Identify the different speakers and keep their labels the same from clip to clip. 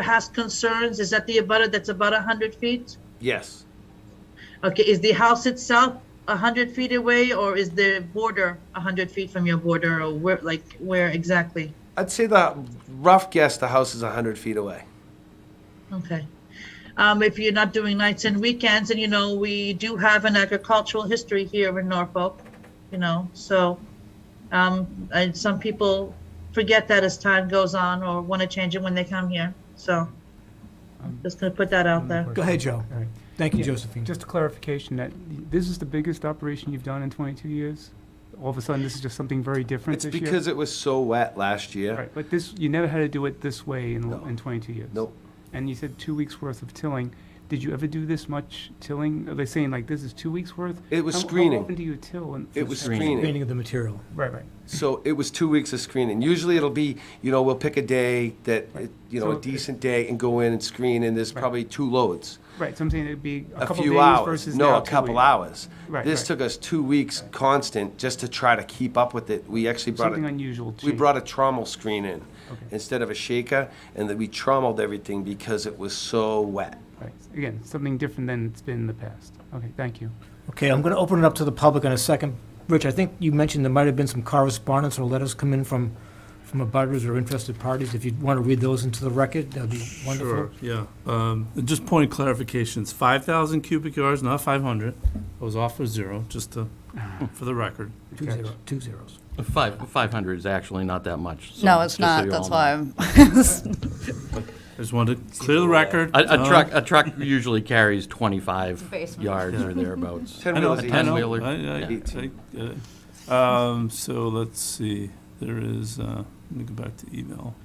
Speaker 1: has concerns, is that the abutter that's about 100 feet?
Speaker 2: Yes.
Speaker 1: Okay, is the house itself 100 feet away, or is the border 100 feet from your border, or where, like, where exactly?
Speaker 2: I'd say the rough guess the house is 100 feet away.
Speaker 1: Okay. Um, if you're not doing nights and weekends, and you know, we do have an agricultural history here in Norfolk, you know, so, um, and some people forget that as time goes on or want to change it when they come here, so. I'm just gonna put that out there.
Speaker 3: Go ahead, Joe.
Speaker 4: All right.
Speaker 3: Thank you,
Speaker 4: Yeah,
Speaker 3: Josephine.
Speaker 4: Just a clarification that this is the biggest operation you've done in 22 years? All of a sudden, this is just something very different
Speaker 2: It's
Speaker 4: this year?
Speaker 2: because it was so wet last year.
Speaker 4: Right, but this, you never had to do it this way in,
Speaker 2: No.
Speaker 4: in 22 years?
Speaker 2: Nope.
Speaker 4: And you said two weeks' worth of tilling. Did you ever do this much tilling? Are they saying like this is two weeks' worth?
Speaker 2: It was
Speaker 4: How-
Speaker 2: screening.
Speaker 4: How often do you till? in-
Speaker 2: It was
Speaker 3: Meaning
Speaker 2: screening.
Speaker 3: of the material.
Speaker 4: Right, right.
Speaker 2: So it was two weeks of screening. Usually it'll be, you know, we'll pick a day that, it- you know,
Speaker 4: So
Speaker 2: a
Speaker 4: it-
Speaker 2: decent day and go in and screen, and there's probably two loads.
Speaker 4: Right, so I'm saying it'd be a
Speaker 2: A
Speaker 4: couple
Speaker 2: few
Speaker 4: days
Speaker 2: hours.
Speaker 4: versus
Speaker 2: No,
Speaker 4: now
Speaker 2: a
Speaker 4: two
Speaker 2: couple
Speaker 4: weeks.
Speaker 2: hours.
Speaker 4: Right,
Speaker 2: This
Speaker 4: right.
Speaker 2: took us two weeks constant just to try to keep up with it. We actually brought
Speaker 4: Something
Speaker 2: it.
Speaker 4: unusual.
Speaker 2: We
Speaker 4: change.
Speaker 2: brought a trommel screen in
Speaker 4: Okay.
Speaker 2: instead of a shaker, and that we trommeled everything because it was so wet.
Speaker 4: Right. Again, something different than it's been in the past. Okay, thank you.
Speaker 3: Okay, I'm going to open it up to the public in a second. Rich, I think you mentioned there might have been some correspondence or letters come in from, from abutters or interested parties. If you want to read those into the record, that'd be wonderful.
Speaker 5: Sure, yeah. Um, and Just point of clarification, it's 5,000 cubic yards, not 500. I was off with zero, just to, for the record.
Speaker 3: Two zero, two zeros.
Speaker 6: Five, 500 is actually not that much. so
Speaker 7: No,
Speaker 6: just
Speaker 7: it's
Speaker 6: so
Speaker 7: not,
Speaker 6: you
Speaker 7: that's
Speaker 6: all
Speaker 7: why
Speaker 6: know.
Speaker 7: I'm,
Speaker 5: I just wanted to clear the record.
Speaker 6: A,
Speaker 5: Uh,
Speaker 6: a truck, a truck usually carries 25
Speaker 7: Basement.
Speaker 6: yards or thereabouts.
Speaker 2: Ten
Speaker 5: I know,
Speaker 2: wheelers
Speaker 6: A
Speaker 2: each.
Speaker 5: I know.
Speaker 6: 10-wheeler.
Speaker 5: I- I-
Speaker 2: Yeah.
Speaker 5: I get it. Um, So let's see, there is, uh, let me go back to email.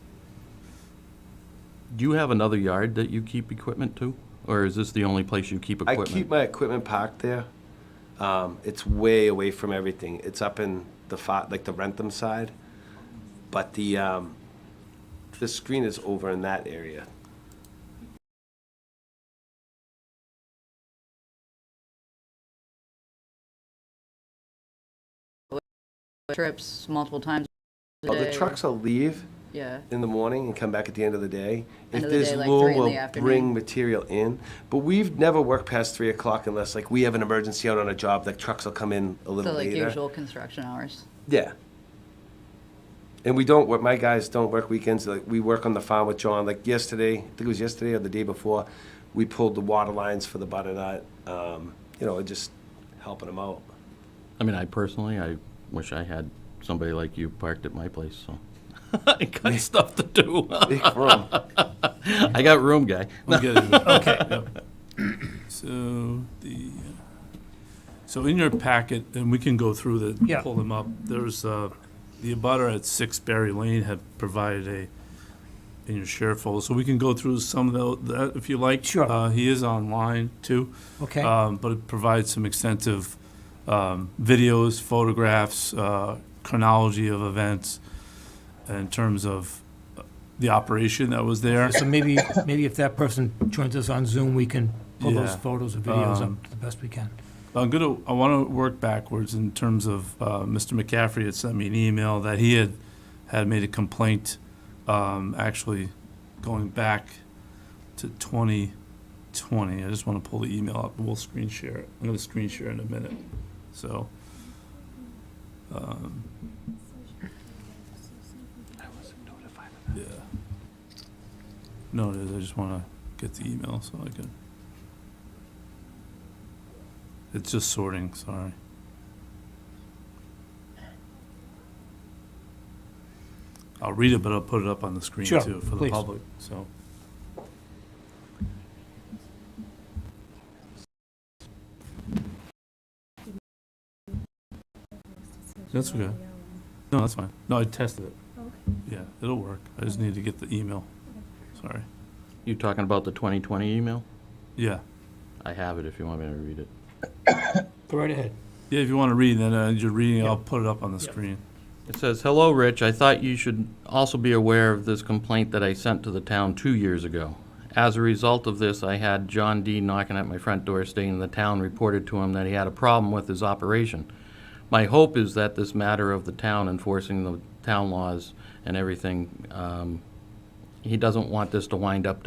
Speaker 6: Do you have another yard that you keep equipment to? Or is this the only place you keep
Speaker 2: I
Speaker 6: equipment?
Speaker 2: keep my equipment parked there. Um, it's way away from everything. It's up in the fi- like the Rentham side, but the um, the screen is over in that area.
Speaker 7: trips multiple times a
Speaker 2: Oh, the
Speaker 7: day.
Speaker 2: trucks will leave
Speaker 7: Yeah,
Speaker 2: in the morning and come back at the end of the day. if
Speaker 7: End of the
Speaker 2: there's
Speaker 7: day, like
Speaker 2: low,
Speaker 7: three in the
Speaker 2: we'll
Speaker 7: afternoon.
Speaker 2: bring material in. But we've never worked past three o'clock unless like we have an emergency out on a job. Like trucks will come in a
Speaker 7: so
Speaker 2: little
Speaker 7: like
Speaker 2: later.
Speaker 7: usual construction hours.
Speaker 2: Yeah. And we don't work, my guys don't work weekends, like, we work on the farm with John, like yesterday, I think it was yesterday or the day before, we pulled the water lines for the butternut, um, you know, just helping them out.
Speaker 6: I mean, I personally, I wish I had somebody like you parked at my place, so. I got stuff to do.
Speaker 2: Big room.
Speaker 6: I got room, guy.
Speaker 5: I'm getting it. Okay. So the, so in your packet, and we can go through the,
Speaker 3: Yeah.
Speaker 5: pull them up, there's, uh, the abutter at Six Berry Lane had provided a, in your share folder, so we can go through some of tho- that, if you like.
Speaker 3: Sure.
Speaker 5: Uh, He is online too.
Speaker 3: Okay.
Speaker 5: Um, but it provides some extensive um, videos, photographs, uh, chronology of events in terms of uh, the operation that was there.
Speaker 3: So maybe, maybe if that person joins us on Zoom, we can pull those
Speaker 5: Yeah.
Speaker 3: photos or videos
Speaker 5: Um,
Speaker 3: up the best we can.
Speaker 5: I'm gonna, I want to work backwards in terms of, uh, Mr. McCaffrey had sent me an email that he had, had made a complaint, um, actually going back to twenty twenty. I just want to pull the email up. We'll screen share it. I'm gonna screen share in a minute, so. um, Yeah. No, it is. I just want to get the email so I can. It's just sorting, sorry. I'll read it, but I'll put it up on the screen
Speaker 3: Sure,
Speaker 5: too for the
Speaker 3: please.
Speaker 5: public, so. That's okay. No, that's fine. No, I tested it. Yeah, it'll work. I just need to get the email. Sorry.
Speaker 6: You talking about the 2020 email?
Speaker 5: Yeah.
Speaker 6: I have it if you want me to read it.
Speaker 3: Go right ahead.
Speaker 5: Yeah, if you want to read, then uh, you're reading, I'll put it up on the
Speaker 3: Yeah.
Speaker 5: screen.
Speaker 6: It says, "Hello, Rich. I thought you should also be aware of this complaint that I sent to the town two years ago. As a result of this, I had John D. knocking at my front door stating the town reported to him that he had a problem with his operation. My hope is that this matter of the town enforcing the town laws and everything, um, he doesn't want this to wind up